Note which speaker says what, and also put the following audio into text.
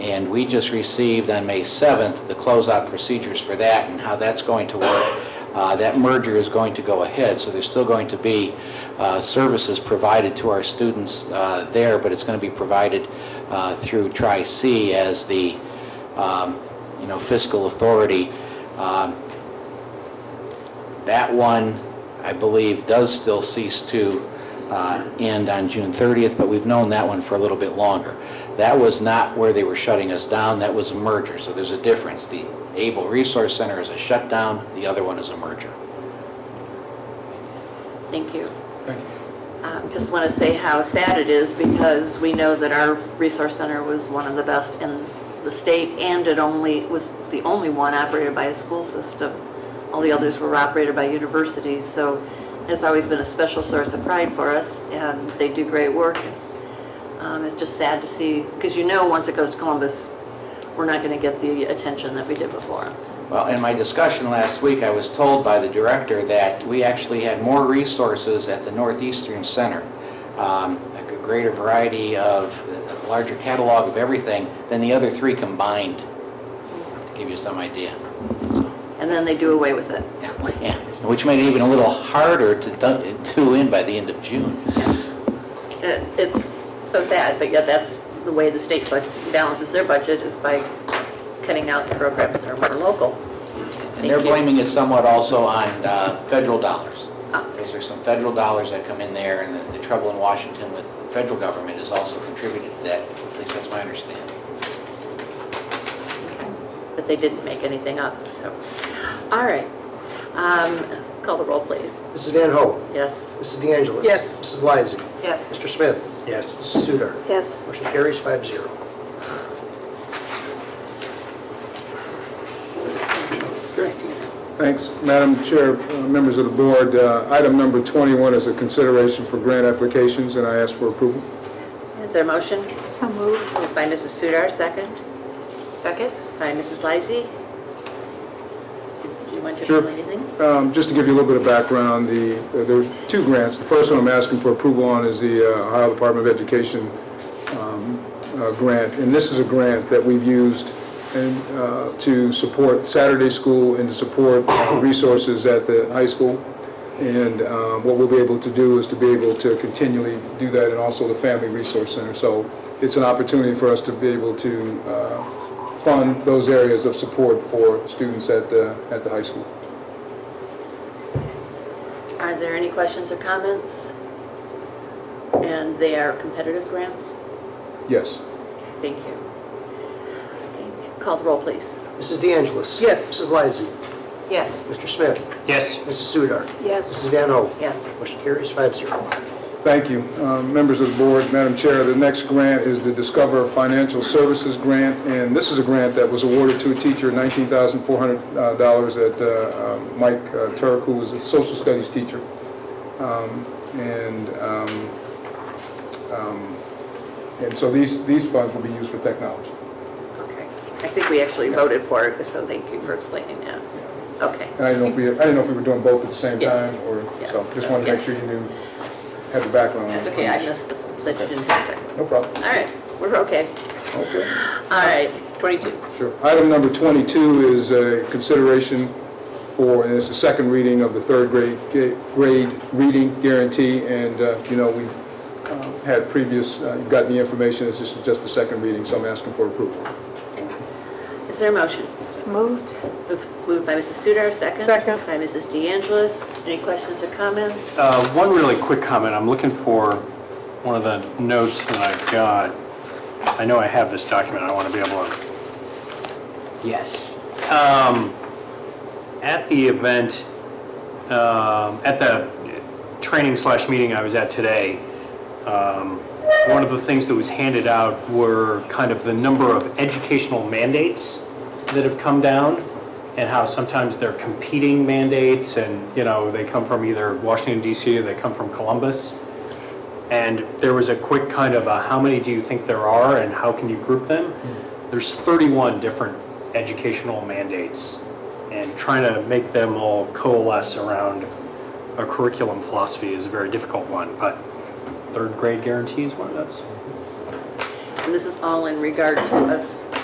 Speaker 1: And we just received on May 7th the closeout procedures for that and how that's going to work. Uh, That merger is going to go ahead, so there's still going to be uh, services provided to our students uh, there, but it's going to be provided uh, through Tri-C as the, um, you know, fiscal authority. Um, That one, I believe, does still cease to uh, end on June 30th, but we've known that one for a little bit longer. That was not where they were shutting us down, that was a merger, so there's a difference. The Able Resource Center is a shutdown, the other one is a merger.
Speaker 2: Thank you.
Speaker 3: Thank
Speaker 2: Um, Just want to say how sad it is because we know that our resource center was one of the best in the state and it only, was the only one operated by a school system. All the others were operated by universities, so it's always been a special source of pride for us and they do great work. Um, It's just sad to see, because you know, once it goes to Columbus, we're not going to get the attention that we did before.
Speaker 1: Well, in my discussion last week, I was told by the director that we actually had more resources at the Northeastern Center, um, a greater variety of, a larger catalog of everything than the other three combined, to give you some idea. So,
Speaker 2: And then they do away with it.
Speaker 1: yeah, Which made it even a little harder to dun- to in by the end of June.
Speaker 2: It- It's so sad, but yet that's the way the state bud- balances their budget is by cutting out the programs that are more local.
Speaker 1: And they're
Speaker 2: Thank you.
Speaker 1: blaming it somewhat also on uh, federal dollars.
Speaker 2: Ah.
Speaker 1: Because there's some federal dollars that come in there, and the- the trouble in Washington with the federal government has also contributed to that, at least that's my understanding.
Speaker 2: But they didn't make anything up, so. All right. Um, Call the roll, please.
Speaker 4: Mrs. Van Ho.
Speaker 2: Yes.
Speaker 4: Mrs. De Angelis.
Speaker 2: Yes.
Speaker 4: Mrs. Lysy.
Speaker 2: Yes.
Speaker 4: Mr. Smith.
Speaker 3: Yes.
Speaker 4: Mrs. Sudar.
Speaker 2: Yes.
Speaker 4: Motion carries five zero.
Speaker 3: Thanks, Madam Chair, uh, members of the board. Uh, Item number 21 is a consideration for grant applications, and I ask for approval.
Speaker 2: Is there a motion? So moved. Moved by Mrs. Sudar, second. Second. By Mrs. Lysy. Do you want to
Speaker 3: Sure.
Speaker 2: explain anything?
Speaker 3: Um, Just to give you a little bit of background, the, uh, there's two grants. The first one I'm asking for approval on is the uh, Ohio Department of Education um, uh, grant, and this is a grant that we've used and, uh, to support Saturday school and to support uh, resources at the high school. And um, what we'll be able to do is to be able to continually do that, and also the Family Resource Center. So it's an opportunity for us to be able to uh, fund those areas of support for students at the, at the high school.
Speaker 2: Are there any questions or comments? And they are competitive grants?
Speaker 3: Yes.
Speaker 2: Thank you. Call the roll, please.
Speaker 4: Mrs. De Angelis.
Speaker 2: Yes.
Speaker 4: Mrs. Lysy.
Speaker 2: Yes.
Speaker 4: Mr. Smith.
Speaker 5: Yes.
Speaker 4: Mrs. Sudar.
Speaker 2: Yes.
Speaker 4: Mrs. Van Ho.
Speaker 2: Yes.
Speaker 4: Motion carries five zero.
Speaker 3: Thank you. Um, Members of the board, Madam Chair, the next grant is the Discover Financial Services Grant, and this is a grant that was awarded to a teacher, $19,400 uh, dollars at uh, um, Mike uh, Turk, who was a social studies teacher. Um, And, um, um, and so these, these funds will be used for technology.
Speaker 2: Okay. I think we actually voted for it, so thank you for explaining that. Okay.
Speaker 3: And I didn't know if we, I didn't know if we were doing both at the same
Speaker 2: Yeah.
Speaker 3: time, or,
Speaker 2: Yeah.
Speaker 3: so just wanted to make sure you knew, had the background. on
Speaker 2: That's
Speaker 3: it.
Speaker 2: okay, I missed that you didn't fix it.
Speaker 3: No problem.
Speaker 2: All right, we're okay.
Speaker 3: Okay.
Speaker 2: All right, 22.
Speaker 3: Sure. Item number 22 is a consideration for, and it's the second reading of the third grade, ga- grade reading guarantee, and, uh, you know, we've um, had previous, uh, you've gotten the information, this is just the second reading, so I'm asking for approval.
Speaker 2: Is there a motion?
Speaker 6: Moved.
Speaker 2: Move- Moved by Mrs. Sudar, second.
Speaker 6: Second.
Speaker 2: By Mrs. De Angelis. Any questions or comments?
Speaker 5: Uh, One really quick comment, I'm looking for one of the notes that I've got. I know I have this document, I want to be able to... Yes. Um, At the event, um, at the training slash meeting I was at today, um, one of the things that was handed out were kind of the number of educational mandates that have come down and how sometimes they're competing mandates and, you know, they come from either Washington DC or they come from Columbus. And there was a quick kind of a, how many do you think there are and how can you group them? There's 31 different educational mandates and trying to make them all coalesce around a curriculum philosophy is a very difficult one, but third grade guarantee is one of those.
Speaker 2: And this is all in regard to us